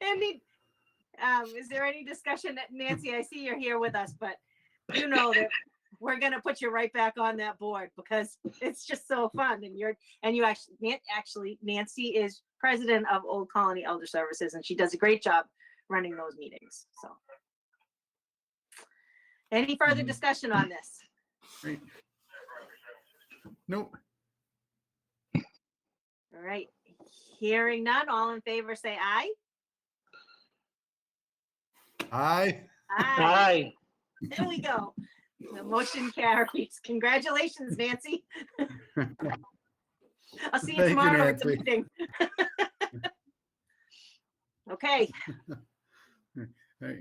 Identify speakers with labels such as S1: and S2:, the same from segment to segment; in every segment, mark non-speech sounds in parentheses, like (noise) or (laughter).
S1: Any, um, is there any discussion that Nancy, I see you're here with us, but you know that we're gonna put you right back on that board because it's just so fun and you're, and you actually, Nan- actually Nancy is president of Old Colony Elder Services and she does a great job running those meetings, so. Any further
S2: Mhm.
S1: discussion on this?
S2: Nope.
S1: All right, hearing none, all in favor, say aye.
S2: Aye.
S1: Aye.
S3: Aye.
S1: There we go. The motion carries. Congratulations, Nancy. I'll see
S2: Thank
S1: you
S2: you,
S1: tomorrow at the
S2: Nancy.
S1: meeting. (laughs) Okay,
S2: I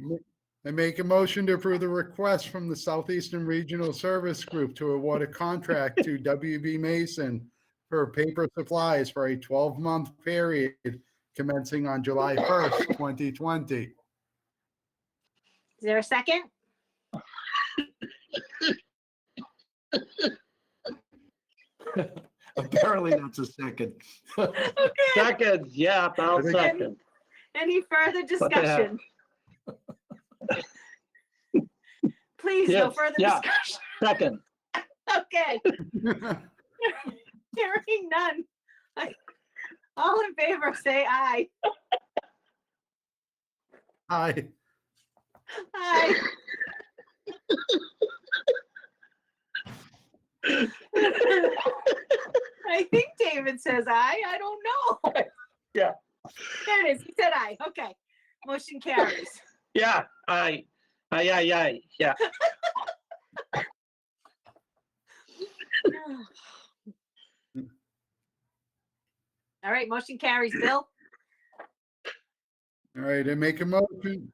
S2: I make a motion to approve the request from the Southeastern Regional Service Group to award a contract
S4: (laughs)
S2: to WB Mason for paper supplies for a 12-month period commencing on July 1st, 2020.
S1: is there a second?
S4: Apparently that's a second.
S1: Okay,
S3: Second, yeah, I'll second.
S1: any further
S3: What the heck?
S1: discussion? Please, no
S3: Yes,
S1: further
S3: yeah.
S1: discussion. (laughs)
S3: Second.
S1: Okay, hearing none. All in favor, say aye.
S2: (laughs) Aye.
S1: Aye. I think David says aye. I don't know.
S3: Yeah.
S1: There it is. He said aye. Okay. Motion carries.
S3: Yeah, aye. Aye, aye, aye, yeah.
S1: All right, motion carries. Bill?
S2: All right, and make a motion.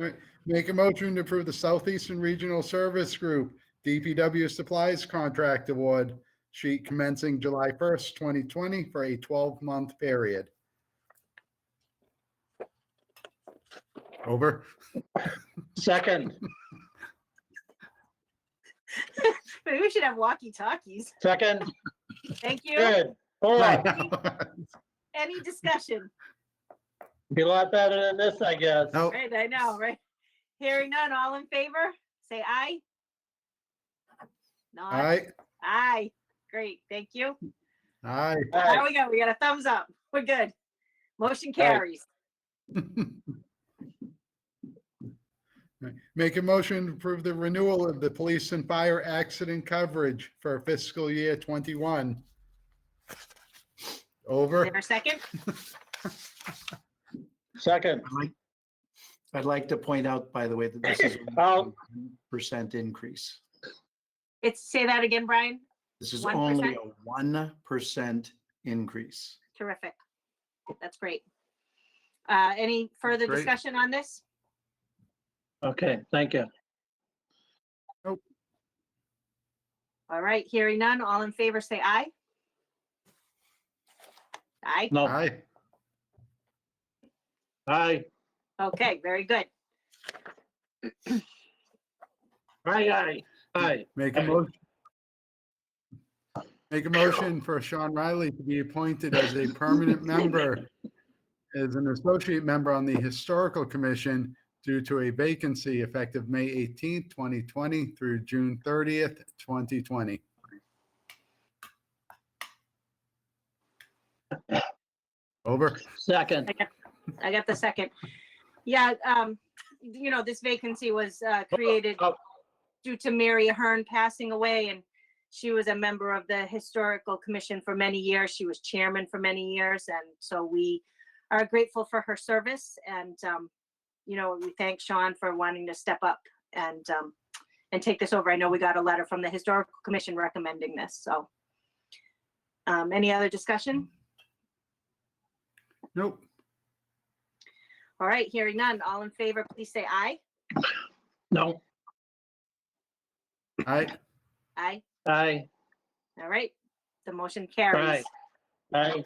S2: all right, Make a motion to approve the Southeastern Regional Service Group DPW Supplies Contract Award sheet commencing July 1st, 2020 for a 12-month period. Over.
S3: Second,
S1: Maybe we should have walkie-talkies.
S3: second,
S1: Thank you.
S3: good. All right,
S1: Any discussion?
S3: be a lot better than this, I guess.
S2: Nope.
S1: Right, I know, right? Hearing none, all in favor, say aye.
S2: All
S1: Nod.
S2: right.
S1: Aye. Great, thank you.
S2: Aye.
S1: There
S3: Aye,
S1: we go. We got a thumbs up. We're good. Motion
S3: Aye.
S1: carries.
S2: Make a motion to approve the renewal of the police and fire accident coverage for fiscal year 21.
S1: Is
S2: Over.
S1: there a second?
S3: second,
S4: I'd like- I'd like to point out, by the way, that this is
S3: Oh.
S4: only one percent increase.
S1: It's, say that again, Brian.
S4: This is
S1: 1%?
S4: only a one percent increase.
S1: Terrific. That's great. Uh, any further
S2: Great.
S1: discussion on this?
S3: okay, thank you.
S1: All right, hearing none, all in favor, say aye. Aye.
S3: No,
S2: Aye.
S3: aye,
S1: Okay, very good.
S3: aye, aye, aye.
S2: Make a motion. Make a motion for Sean Riley to be appointed as a permanent member, as an associate member on the Historical Commission due to a vacancy effective May 18th, 2020 through June 30th, 2020. Over.
S3: Second,
S1: I got the second. Yeah, um, you know, this vacancy was, uh, created
S3: oh.
S1: due to Mary Ahern passing away and she was a member of the Historical Commission for many years. She was chairman for many years. And so we are grateful for her service and, um, you know, we thank Sean for wanting to step up and, um, and take this over. I know we got a letter from the Historical Commission recommending this, so. Um, any other discussion?
S2: Nope.
S1: All right, hearing none. All in favor, please say aye.
S3: no,
S2: Aye.
S1: Aye.
S3: aye,
S1: All right, the motion carries.
S3: Aye. aye,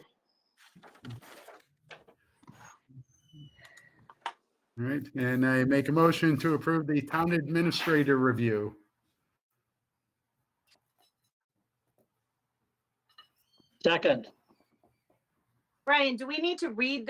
S2: All right. And I make a motion to approve the town administrator review.
S3: second.
S1: Brian, do we need to read